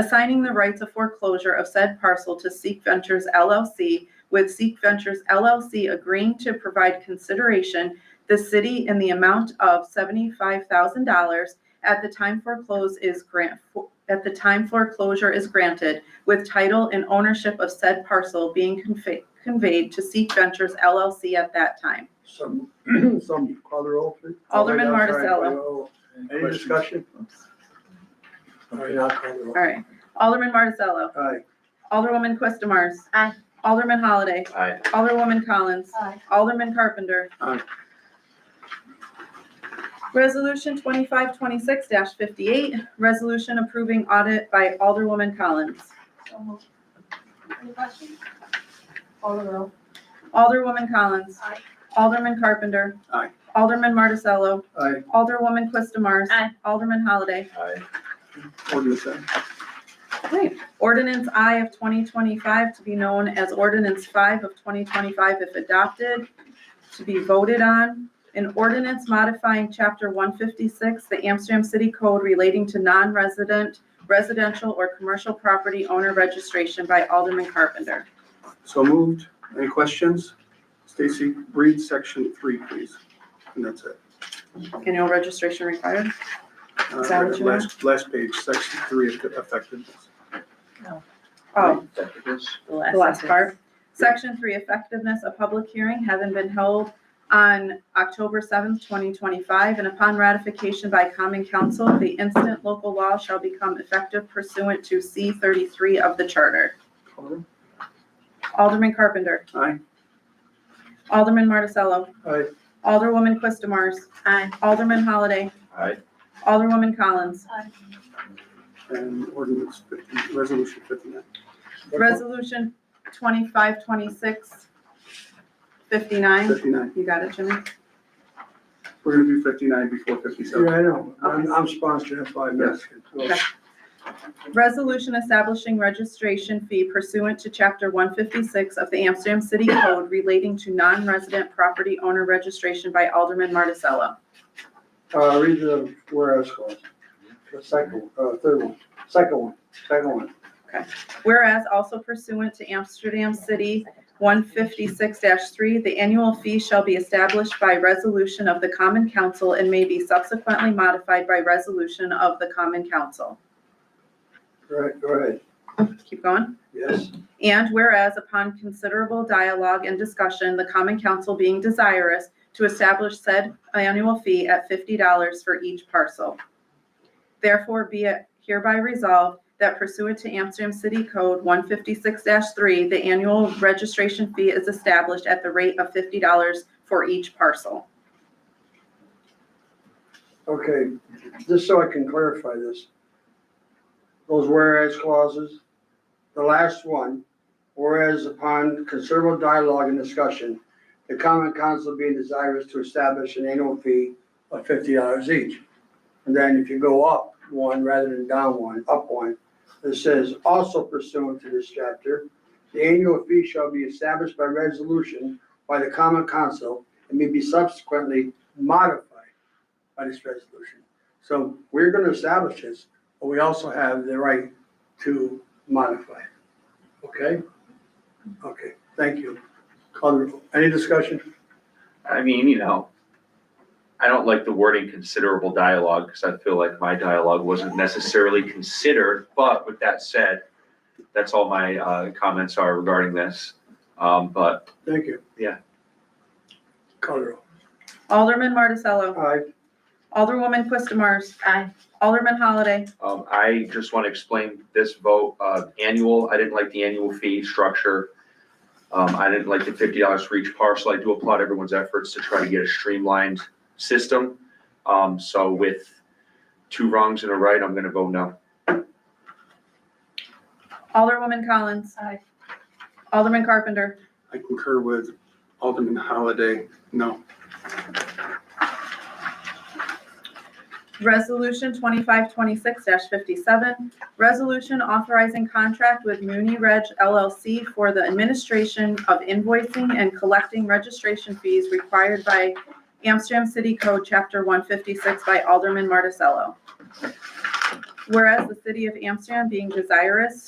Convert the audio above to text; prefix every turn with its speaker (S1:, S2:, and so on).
S1: assigning the rights of foreclosure of said parcel to Seek Ventures LLC, with Seek Ventures LLC agreeing to provide consideration the city in the amount of seventy-five thousand dollars at the time foreclose is grant, at the time foreclosure is granted, with title and ownership of said parcel being confe- conveyed to Seek Ventures LLC at that time.
S2: Some, some, call the roll, please.
S1: Alderman
S2: Oh, I'm sorry,
S1: Marticello.
S2: oh, Any discussion? Okay, I'll call the roll.
S1: All right. Alderman Marticello.
S2: Aye.
S1: Alderwoman Quistamars.
S3: Aye.
S1: Alderman Holliday.
S4: Aye.
S1: Alderwoman Collins.
S3: Aye.
S1: Alderman Carpenter.
S2: Aye.
S1: Resolution twenty-five twenty-six fifty-eight, resolution approving audit by Alderwoman Collins.
S3: So moved. Any questions? Call the roll.
S1: Alderwoman Collins.
S3: Aye.
S1: Alderman Carpenter.
S2: Aye.
S1: Alderman Marticello.
S2: Aye,
S1: Alderwoman Quistamars.
S3: Aye.
S1: Alderman Holliday.
S4: Aye.
S2: ordinance then.
S1: Okay. Ordinance I of twenty twenty-five to be known as ordinance five of twenty twenty-five if adopted, to be voted on. An ordinance modifying chapter one fifty-six, the Amsterdam City Code relating to non-resident, residential or commercial property owner registration by Alderman Carpenter.
S5: So moved. Any questions? Stacy, read section three, please. And that's it.
S1: Annual registration required.
S5: Uh,
S1: Is that what you want?
S5: Last, last page, section three, effectiveness.
S1: Oh,
S4: Executives.
S1: the last part. Section three, effectiveness, a public hearing having been held on October seventh, twenty twenty-five, and upon ratification by common council, the instant local law shall become effective pursuant to C thirty-three of the charter.
S2: Alderman?
S1: Alderman Carpenter.
S5: Aye.
S1: Alderman Marticello.
S2: Aye.
S1: Alderwoman Quistamars.
S3: Aye.
S1: Alderman Holliday.
S4: Aye.
S1: Alderwoman Collins.
S3: Aye.
S5: And ordinance fifty, resolution fifty-nine.
S1: Resolution twenty-five, twenty-six, fifty-nine.
S5: Fifty-nine.
S1: You got it, Jimmy?
S5: We're gonna do fifty-nine before
S2: Yeah,
S5: fifty-seven.
S2: I know. I'm, I'm sponsoring it by Mexican.
S1: Okay. Resolution establishing registration fee pursuant to Chapter 156 of the Amsterdam City Code relating to non-resident property owner registration by Alderman Marticello.
S2: Uh, read the whereas clause. The second, uh, third one. Second one. Second one.
S1: Whereas also pursuant to Amsterdam City 156-3, the annual fee shall be established by resolution of the Common Council and may be subsequently modified by resolution of the Common Council.
S2: All right, go ahead.
S1: Keep going.
S2: Yes.
S1: And whereas upon considerable dialogue and discussion, the common council being desirous to establish said annual fee at fifty dollars for each parcel. Therefore be it hereby resolved that pursuant to Amsterdam City Code one fifty-six three, the annual registration fee is established at the rate of fifty dollars for each parcel.
S2: Okay, just so I can clarify this. Those whereas clauses, the last one, whereas upon considerable dialogue and discussion, the common council being desirous to establish an annual fee of fifty dollars each. And then if you go up one rather than down one, up one, it says also pursuant to this chapter, the annual fee shall be established by resolution by the common council and may be subsequently modified by this resolution. So we're gonna establish this, but we also have the right to modify it. Okay? Okay, thank you. Call the roll. Any discussion?
S4: I mean, you know, I don't like the wording considerable dialogue because I feel like my dialogue wasn't necessarily considered. But with that said, that's all my uh, comments are regarding this. Um, But
S2: Thank you.
S4: Yeah.
S2: Call the roll.
S1: Alderman Marticello,
S2: Aye.
S1: Alderwoman Quistamars,
S3: Aye.
S1: Alderman Holliday,
S4: um, I just want to explain this vote, uh, annual, I didn't like the annual fee structure. Um, I didn't like the fifty dollars for each parcel. I do applaud everyone's efforts to try to get a streamlined system. Um, So with two wrongs and a right, I'm going to vote no.
S1: Alderwoman Collins,
S3: Aye.
S1: Alderman Carpenter.
S5: I concur with Alderman Holliday. No.
S1: Resolution twenty-five twenty-six fifty-seven, resolution authorizing contract with Muni Reg LLC for the administration of invoicing and collecting registration fees required by Amsterdam City Code, Chapter one fifty-six by Alderman Marticello. Whereas the city of Amsterdam being desirous